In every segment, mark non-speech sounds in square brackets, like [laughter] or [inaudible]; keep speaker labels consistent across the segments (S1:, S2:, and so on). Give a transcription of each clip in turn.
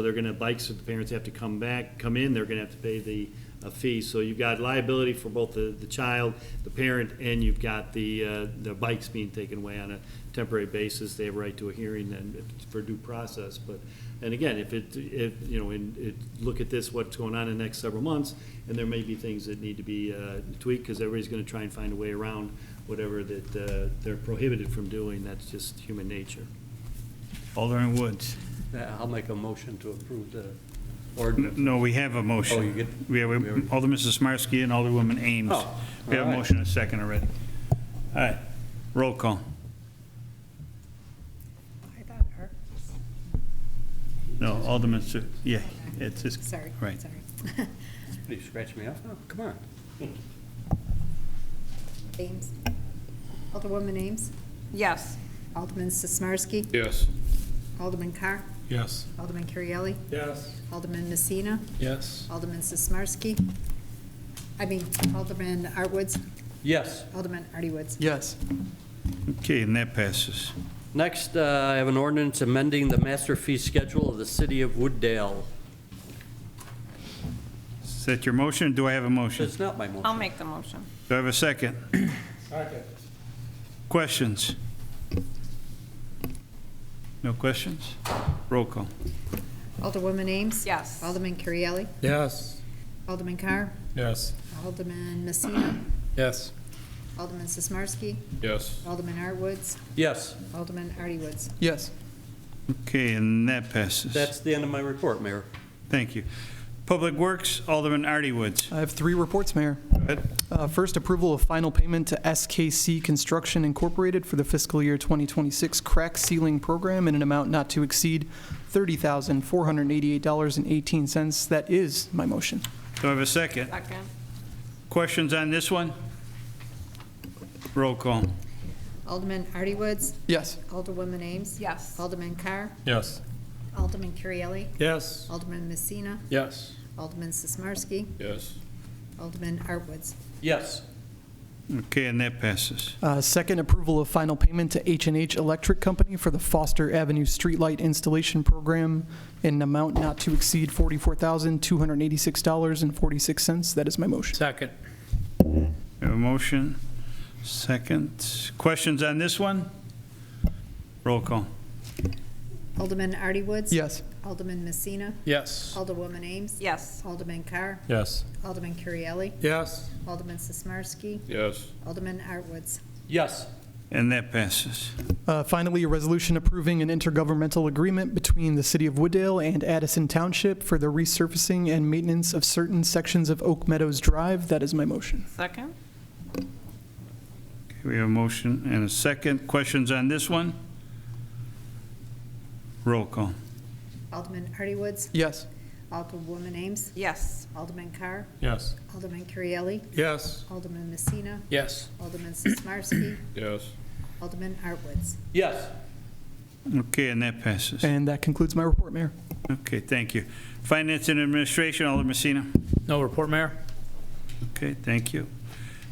S1: So they're gonna, bikes, the parents have to come back, come in, they're gonna have to pay the uh, fee. So you've got liability for both the, the child, the parent, and you've got the, uh, the bikes being taken away on a temporary basis. They have a right to a hearing and for due process, but, and again, if it, if, you know, and it, look at this, what's going on in the next several months, and there may be things that need to be uh, tweaked, because everybody's gonna try and find a way around whatever that uh, they're prohibited from doing. That's just human nature.
S2: Alderman Woods.
S3: Yeah, Uh, I'll make a motion to approve the
S2: N-
S3: ordinance.
S2: No, we have a motion.
S3: Oh, you get-
S2: We have, a-
S3: we already-
S2: Alderman Sizmarsky and Alderwoman Ames.
S3: Oh,
S2: We have a
S3: all right.
S2: motion and a second already. All right, roll call.
S4: I thought her,
S2: No, Alderman, Si- yeah, it's just.
S4: sorry, sorry. [laughs]
S2: Right.
S3: Did you scratch me off? Oh, come on.
S4: Ames. Alderwoman Ames.
S5: Yes.
S4: Alderman Sismarski.
S6: Yes.
S4: Alderman Carr.
S6: Yes.
S4: Alderman Currielli.
S6: Yes.
S4: Alderman Messina.
S6: Yes.
S4: Alderman Sismarski. I mean, Alderman Artwoods.
S3: Yes.
S4: Alderman Artie Woods.
S3: Yes.
S2: Okay, and that passes.
S3: Next, uh, I have an ordinance amending the master fee schedule of the city of Wooddale.
S2: Is that your motion? Do I have a motion?
S3: It's not my
S5: I'll
S3: motion.
S5: make the motion.
S2: Do I have a second? Second. Questions? No questions? Roll call.
S4: Alderwoman Ames.
S5: Yes.
S4: Alderman Currielli.
S6: Yes.
S4: Alderman Carr.
S6: Yes.
S4: Alderman Messina.
S6: Yes.
S4: Alderman Sismarski.
S6: Yes.
S4: Alderman Artwoods.
S3: Yes,
S4: Alderman Artie Woods.
S6: Yes.
S2: Okay, and that passes.
S3: that's the end of my report, Mayor.
S2: Thank you. Public Works, Alderman Artie Woods.
S7: I have three reports, Mayor.
S2: ahead.
S7: Uh, First, approval of final payment to SKC Construction Incorporated for the fiscal year 2026 crack sealing program in an amount not to exceed $30,488.18. That is my motion.
S2: Do I have a second?
S5: Second.
S2: Questions on this one? Roll call.
S4: Alderman Artie Woods.
S7: Yes.
S4: Alderwoman Ames.
S5: Yes.
S4: Alderman Carr.
S6: Yes.
S4: Alderman Currielli.
S6: Yes.
S4: Alderman Messina.
S6: Yes.
S4: Alderman Sismarski,
S6: Yes.
S4: Alderman Artwoods,
S3: Yes,
S2: Okay, and that passes.
S7: Uh, Second, approval of final payment to h and H Electric Company for the Foster Avenue Streetlight Installation Program in an amount not to exceed $44,286.46. That is my motion.
S6: Second.
S2: We have a motion, second. Questions on this one? Roll call.
S4: Alderman Artie Woods.
S7: Yes.
S4: Alderman Messina,
S6: Yes.
S4: Alderwoman Ames.
S5: Yes.
S4: Alderman Carr,
S6: Yes.
S4: Alderman Currielli,
S6: Yes.
S4: Alderman Sismarski,
S6: Yes.
S4: Alderman Artwoods,
S3: yes,
S2: And that passes.
S7: Uh, Finally, a resolution approving an intergovernmental agreement between the City of Wooddale and Addison Township for the resurfacing and maintenance of certain sections of Oak Meadows Drive. That is my motion.
S5: Second?
S2: Okay, We have a motion and a second. Questions on this one? Roll call.
S4: Alderman Artie Woods,
S7: Yes.
S4: Alderwoman Ames,
S5: Yes.
S4: Alderman Carr,
S6: Yes.
S4: Alderman Currielli,
S6: Yes.
S4: Alderman Messina,
S6: Yes.
S4: Alderman Sismarski,
S6: Yes.
S4: Alderman Artwoods.
S3: yes.
S2: Okay, and that passes.
S7: And that concludes my report, Mayor.
S2: Okay, thank you. Finance and Administration, Alderman Messina.
S8: No report, Mayor.
S2: Okay, thank you.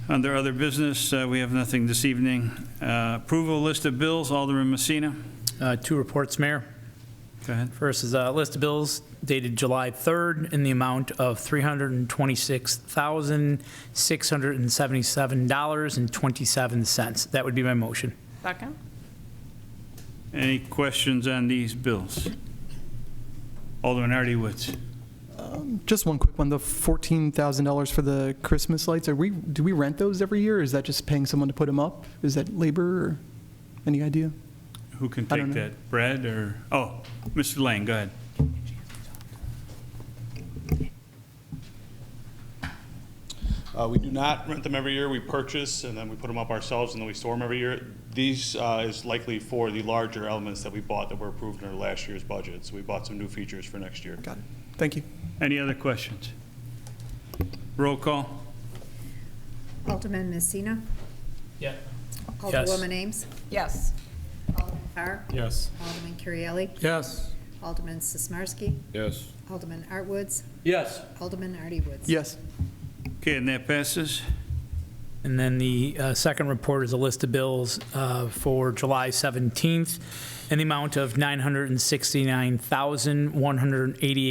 S2: Under other business, uh, we have nothing this evening. Uh, Approval list of bills, Alderman Messina.
S8: Uh, Two reports, Mayor.
S2: Go ahead.
S8: First is a list of bills dated July 3rd in the amount of $326,677.27. That would be my motion.
S5: Second?
S2: Any questions on these bills? Alderman Artie Woods.
S7: Just one quick one, the $14,000 for the Christmas lights, are we, do we rent those every year? or Is that just paying someone to put them up? Is that labor or, any idea?
S2: Who can
S7: I don't
S2: take
S7: know.
S2: that? Brad or, oh, Mr. Lang, go ahead.
S9: Uh, We do not rent them every year. We purchase and then we put them up ourselves and then we store them every year. These uh, is likely for the larger elements that we bought that were approved in our last year's budget. So we bought some new features for next year.
S7: Got it. Thank you.
S2: Any other questions? Roll call.
S4: Alderman Messina,
S8: Yeah.
S4: Alderwoman Ames,
S5: Yes.
S4: Alderman Carr,
S6: Yes.
S4: Alderman Currielli,
S6: Yes.
S4: Alderman Sismarski,
S6: Yes.
S4: Alderman Artwoods,
S3: Yes,
S4: Alderman Artie Woods.
S7: Yes.
S2: Okay, and that passes.
S8: And then the uh, second report is a list of bills uh, for July 17th in the amount of $969,188.